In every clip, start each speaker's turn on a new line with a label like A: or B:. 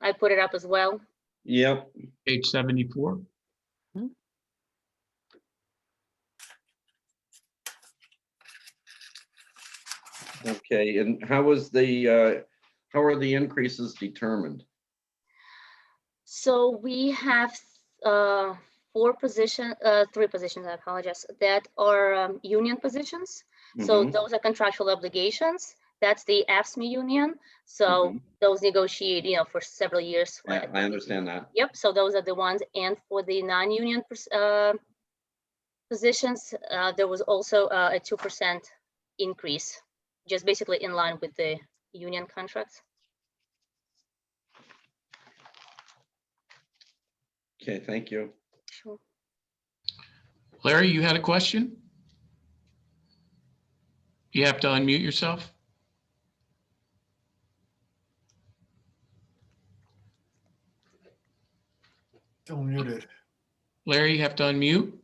A: I put it up as well.
B: Yep,
C: page seventy-four.
B: okay, and how was the, uh, how are the increases determined?
A: So we have uh, four position, uh, three positions, I apologize, that are um, union positions. So
B: Mhm,
A: those are contractual obligations. That's the AFSMI E union. So
B: mhm.
A: those negotiate, you know, for several years.
B: I,
A: uh,
B: I understand that.
A: Yep, so those are the ones. And for the non-union pers- uh, positions, uh, there was also uh, a 2% increase, just basically in line with the union contracts.
B: Okay, thank you.
A: Sure.
C: Larry, you had a question? You have to unmute yourself.
D: Still muted.
C: Larry, you have to unmute.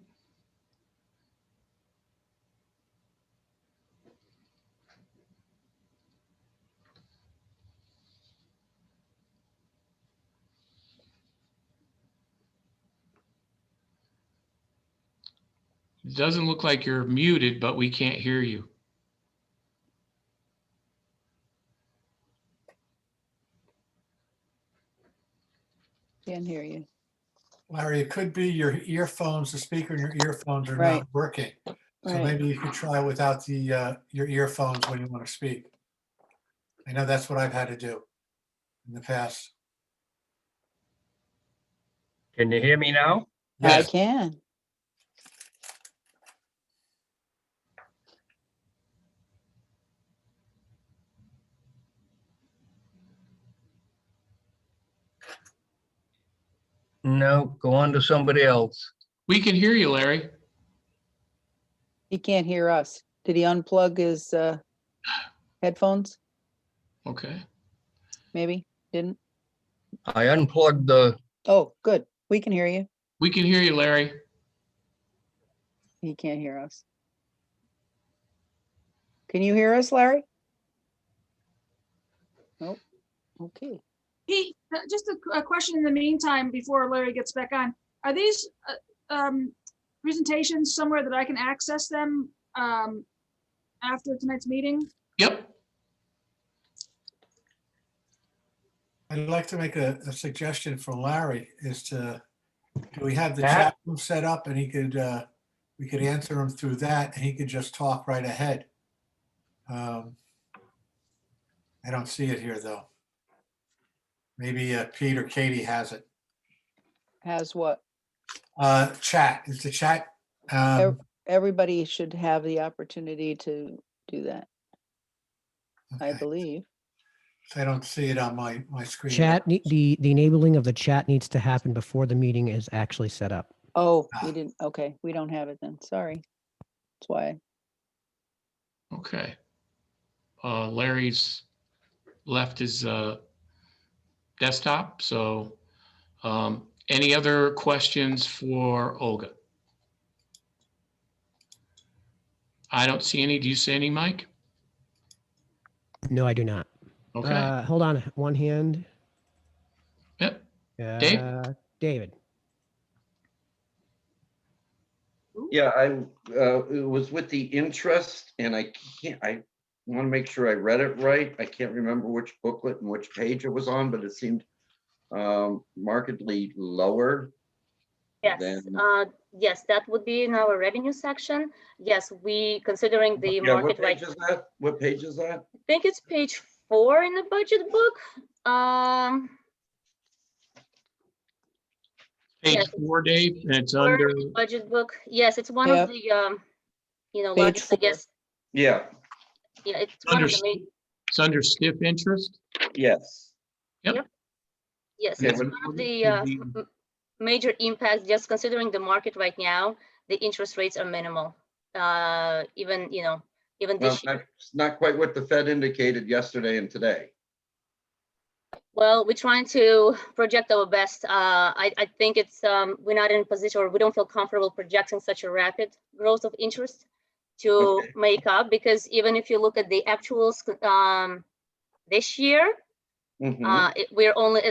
C: It Doesn't look like you're muted, but we can't hear you.
E: Can't hear you.
D: Larry, it could be your earphones, the speaker in your earphones are
E: Right.
D: not working. So
E: Right.
D: maybe you could try without the, uh, your earphones when you want to speak. I know that's what I've had to do in the past.
F: Can you hear me now?
E: I
D: Yes,
E: can.
F: No, go on to somebody else.
C: We can hear you, Larry.
E: He can't hear us. Did he unplug his uh headphones?
C: Okay.
E: Maybe, didn't?
F: I unplugged the,
E: Oh, good. We can hear you.
C: We can hear you, Larry.
E: He can't hear us. Can you hear us, Larry? Nope. Okay.
G: Pete, uh, just a, qu- a question in the meantime, before Larry gets back on. Are these uh, um, presentations somewhere that I can access them um, after tonight's meeting?
C: Yep.
D: I'd like to make a, a suggestion for Larry is to, do we have the
F: That-
D: chat room set up and he could, uh, we could answer him through that and he could just talk right ahead. Um, I don't see it here, though. Maybe uh, Pete or Katie has it.
E: Has what?
D: Uh, chat, is the chat, um,
E: Everybody should have the opportunity to do that, I
D: okay.
E: believe.
D: I don't see it on my, my screen.
H: Chat, nee- the, the enabling of the chat needs to happen before the meeting is actually set up.
E: Oh,
D: Ah.
E: we didn't, okay, we don't have it then. Sorry. That's why.
C: Okay. Uh, Larry's left his, uh, desktop, so, um, any other questions for Olga? I don't see any. Do you see any, Mike?
H: No, I do not.
C: Okay,
H: Uh, hold on, one hand.
C: yep. Dave?
H: Uh, David,
B: Yeah, I, uh, it was with the interest and I can't, I want to make sure I read it right. I can't remember which booklet and which page it was on, but it seemed um, markedly lower.
A: Yes,
B: Then-
A: uh, yes, that would be in our revenue section. Yes, we, considering the
B: Yeah, what
A: market right
B: page is that? What page is that?
A: I think it's page four in the budget book. Um,
C: Page
A: Yes.
C: four, Dave, and it's
A: four
C: under,
A: budget book. Yes, it's one of the, um, you know,
E: Page
A: largest, I
E: four.
A: guess.
B: Yeah,
A: Yeah, it's one of the
C: Understood.
A: main,
C: it's under stiff interest.
B: yes.
A: yes,
B: Yeah,
A: it's
B: when-
A: one of
C: when
A: the,
C: did
A: uh,
C: the-
A: m- m- major impacts, just considering the market right now, the interest rates are minimal. Uh, even, you know, even
B: Well,
A: this year.
B: that's not quite what the Fed indicated yesterday and today.
A: Well, we're trying to project our best. Uh, I, I think it's, um, we're not in a position or we don't feel comfortable projecting such a rapid growth of interest to
B: Okay.
A: make up, because even if you look at the actuals, um, this year,
B: Mhm.
A: uh, it- we're only